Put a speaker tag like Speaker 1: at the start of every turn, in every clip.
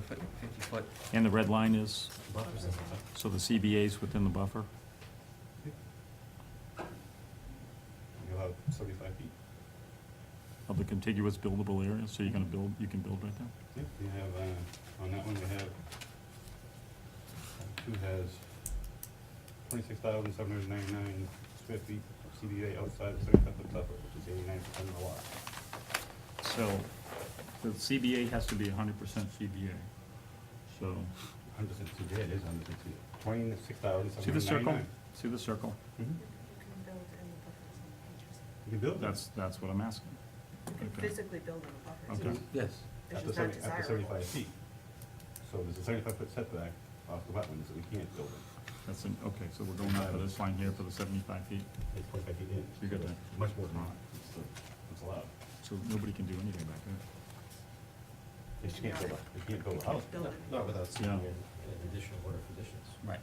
Speaker 1: foot, fifty foot
Speaker 2: And the red line is,
Speaker 1: buffers.
Speaker 2: so the CBA's within the buffer?
Speaker 3: You have seventy-five feet.
Speaker 2: of the contiguous buildable area, so you're gonna build, you can build right there?
Speaker 3: Yep, we have, uh, on that one, we have, uh, two has twenty-six thousand seven hundred ninety-nine square feet of CBA outside the thirty-five foot buffer, which is eighty-nine percent of the lot.
Speaker 2: So, the CBA has to be hundred percent CBA. So,
Speaker 3: Hundred percent CBA, it is hundred percent CBA. Twenty-six thousand
Speaker 2: see
Speaker 3: seven
Speaker 2: the
Speaker 3: hundred
Speaker 2: circle?
Speaker 3: ninety-nine.
Speaker 2: See the circle?
Speaker 3: Mhm.
Speaker 4: You can build in the buffer zone, interesting.
Speaker 3: You can build that.
Speaker 2: That's, that's what I'm asking.
Speaker 4: You can
Speaker 2: Okay.
Speaker 4: physically build in a buffer
Speaker 2: Okay.
Speaker 4: zone.
Speaker 1: Yes.
Speaker 4: It's
Speaker 3: After
Speaker 4: just not
Speaker 3: seventy, after
Speaker 4: desirable.
Speaker 3: seventy-five feet. So there's a seventy-five foot setback off the wetland, so we can't build it.
Speaker 2: That's, in- okay, so we're going out of this line here for the seventy-five feet,
Speaker 3: It's twenty-five feet in.
Speaker 2: You got
Speaker 3: so
Speaker 2: that.
Speaker 3: it's Much more than that. It's, uh, It's allowed.
Speaker 2: so nobody can do anything back there.
Speaker 3: They just can't build a, they can't build a house.
Speaker 4: Build it.
Speaker 5: Not without seeing
Speaker 2: Yeah.
Speaker 5: an an additional order of conditions.
Speaker 2: Right.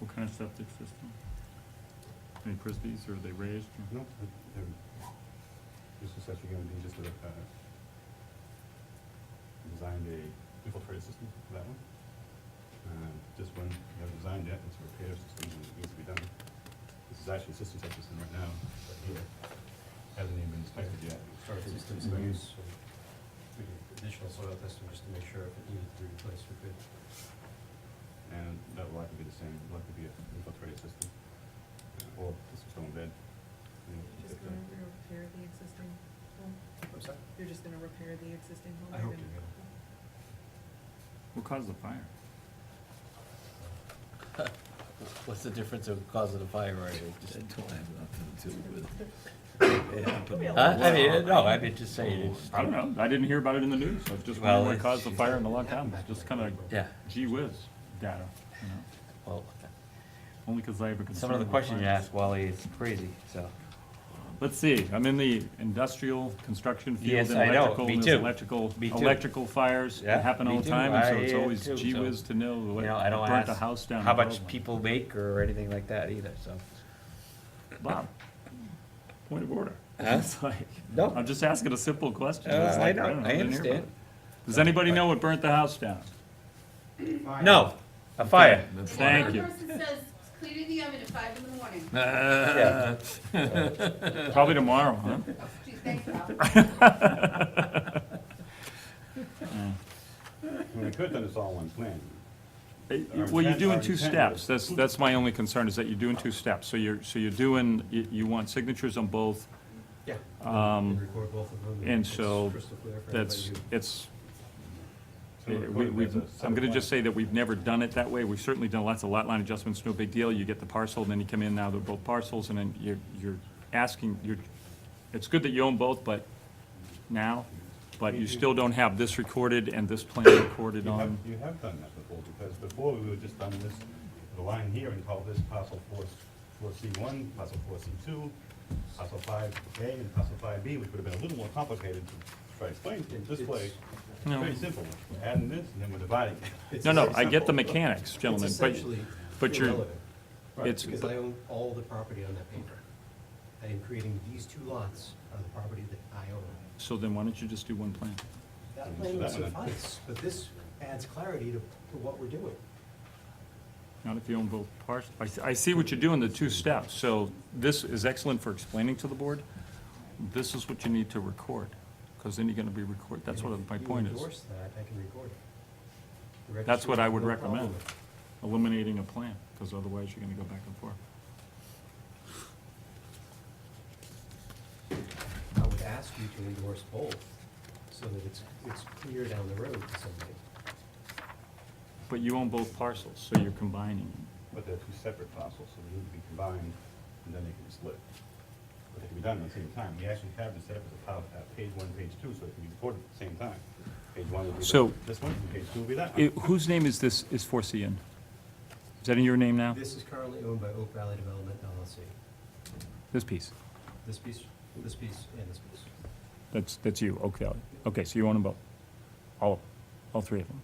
Speaker 2: What kind of septic system? Any prisbies, or are they raised? or-
Speaker 3: No, they're, this is actually gonna be just a, uh, designed a infiltrated system for that one. Uh, this one, we haven't designed yet, it's a repair system and it needs to be done. This is actually a system type system right now, but here, hasn't even been inspected yet.
Speaker 5: Start with systems
Speaker 3: Mhm.
Speaker 5: use, so we did additional soil testing just to make sure if it needed to be replaced, we could.
Speaker 3: And that will likely be the same, likely be an infiltrated system, uh, or just a stone bed. you know, if uh,
Speaker 4: You're just
Speaker 3: the-
Speaker 4: gonna repair the existing home?
Speaker 5: I'm sorry?
Speaker 4: You're just gonna repair the existing home?
Speaker 5: I
Speaker 4: You're
Speaker 5: hope to,
Speaker 4: gonna-
Speaker 5: yeah.
Speaker 2: What caused the fire?
Speaker 6: What's the difference of causing a fire or anything? Just-
Speaker 7: That don't have nothing to do with.
Speaker 6: Huh? I mean, no, I mean, just saying, it's,
Speaker 2: I don't know, I didn't hear about it in the news, I was just
Speaker 6: Well,
Speaker 2: wondering what
Speaker 6: it's-
Speaker 2: caused the fire in the lockdown,
Speaker 5: Back
Speaker 2: it's
Speaker 5: in
Speaker 2: just
Speaker 5: the-
Speaker 2: kinda
Speaker 6: yeah,
Speaker 2: gee whiz data, you know,
Speaker 6: well,
Speaker 2: only 'cause I have a concern.
Speaker 6: some of the
Speaker 2: about
Speaker 6: questions you
Speaker 2: fires.
Speaker 6: ask, Wally, it's crazy, so.
Speaker 2: Let's see, I'm in the industrial construction field
Speaker 6: Yes,
Speaker 2: and
Speaker 6: I know.
Speaker 2: electrical,
Speaker 6: Me
Speaker 2: and
Speaker 6: too.
Speaker 2: there's electrical,
Speaker 6: Me too.
Speaker 2: electrical fires
Speaker 6: Yeah,
Speaker 2: that happen all
Speaker 6: me
Speaker 2: the
Speaker 6: too.
Speaker 2: time, and so
Speaker 6: I
Speaker 2: it's
Speaker 6: am
Speaker 2: always
Speaker 6: too,
Speaker 2: gee
Speaker 6: so,
Speaker 2: whiz to know
Speaker 6: You
Speaker 2: what
Speaker 6: know, I don't
Speaker 2: burnt the
Speaker 6: ask
Speaker 2: house down.
Speaker 6: how
Speaker 2: in
Speaker 6: much
Speaker 2: Groveland.
Speaker 6: people make or anything like that either, so.
Speaker 2: Bob, point of order.
Speaker 6: Huh?
Speaker 2: It's like,
Speaker 6: No.
Speaker 2: I'm just asking a simple question.
Speaker 6: Uh,
Speaker 2: It's
Speaker 6: I
Speaker 2: like,
Speaker 6: know,
Speaker 2: don't
Speaker 6: I
Speaker 2: didn't hear about
Speaker 6: understand.
Speaker 2: it. Does anybody know what burnt the house down?
Speaker 6: No, a fire.
Speaker 2: Thank you.
Speaker 8: One person says, clear the oven at five in the morning.
Speaker 6: Yeah.
Speaker 2: Probably tomorrow, huh?
Speaker 8: Gee, thanks, Al.
Speaker 2: Uh,
Speaker 3: Well, we could have done this all in one plan. Our
Speaker 2: Well, you
Speaker 3: intent-
Speaker 2: do in
Speaker 3: our
Speaker 2: two
Speaker 3: intent
Speaker 2: steps, that's,
Speaker 3: was-
Speaker 2: that's my only concern, is that you do in two steps. So you're, so you're doing, you, you want signatures on both,
Speaker 5: Yeah. Um. Record both of them.
Speaker 2: and
Speaker 5: it's
Speaker 2: so
Speaker 5: crystal clear for
Speaker 2: that's,
Speaker 5: everybody
Speaker 2: it's,
Speaker 3: So
Speaker 2: we,
Speaker 3: we're putting
Speaker 2: we,
Speaker 3: it as a separate
Speaker 2: I'm gonna just
Speaker 3: plan.
Speaker 2: say that we've never done it that way, we've certainly done lots of lot line adjustments, no big deal, you get the parcel, and then you come in, now they're both parcels, and then you're, you're asking, you're, it's good that you own both, but now, but you still don't have this recorded and this plan recorded
Speaker 3: You have,
Speaker 2: on,
Speaker 3: you have done that before, because before we were just on this, the line here and called this parcel four, four C one, parcel four C two, parcel five A and parcel five B, which would have been a little more complicated to try to explain to you.
Speaker 5: It-
Speaker 3: This way,
Speaker 5: it's-
Speaker 2: No.
Speaker 3: very simple, We're adding this and then we're dividing.
Speaker 5: It's
Speaker 2: no, no, I
Speaker 3: very
Speaker 2: get the
Speaker 3: simple.
Speaker 2: mechanics,
Speaker 5: It's
Speaker 2: gentlemen, but,
Speaker 5: essentially
Speaker 2: but you're-
Speaker 5: irrelevant.
Speaker 3: Right,
Speaker 2: it's-
Speaker 5: Because I own all the property on that paper. I am creating these two lots on the property that I own.
Speaker 2: so then why don't you just do one plan?
Speaker 5: That
Speaker 3: So
Speaker 5: plan would
Speaker 3: that one-
Speaker 5: suffice, but this adds clarity to, to what we're doing.
Speaker 2: Not if you own both parts. I, s- I see what you're doing, the two steps. So this is excellent for explaining to the board. This is what you need to record, because then you're gonna be record, that's what my point
Speaker 5: If you
Speaker 2: is.
Speaker 5: endorse that, I can record it. The
Speaker 2: That's what I
Speaker 5: registry
Speaker 2: would
Speaker 5: will have no
Speaker 2: recommend,
Speaker 5: problem with
Speaker 2: eliminating a plan, because otherwise you're gonna go back and forth.
Speaker 5: it. I would ask you to endorse both, so that it's, it's clear down the road to somebody.
Speaker 2: But you own both parcels, so you're combining.
Speaker 3: But they're two separate parcels, so they need to be combined, and then they can be split. But they can be done at the same time. We actually have this set up as a pile, uh, page one, page two, so it can be recorded at the same time. Page one will be
Speaker 2: So-
Speaker 3: the- this one, and page two will be that
Speaker 2: I-
Speaker 3: one.
Speaker 2: Whose name is this, is 4C in? Is that in your name now?
Speaker 5: This is currently owned by Oak Valley Development LLC.
Speaker 2: This piece?
Speaker 5: This piece, this piece, and this piece.
Speaker 2: That's, that's you, Oak Valley. Okay, so you own them both? All, all three of them?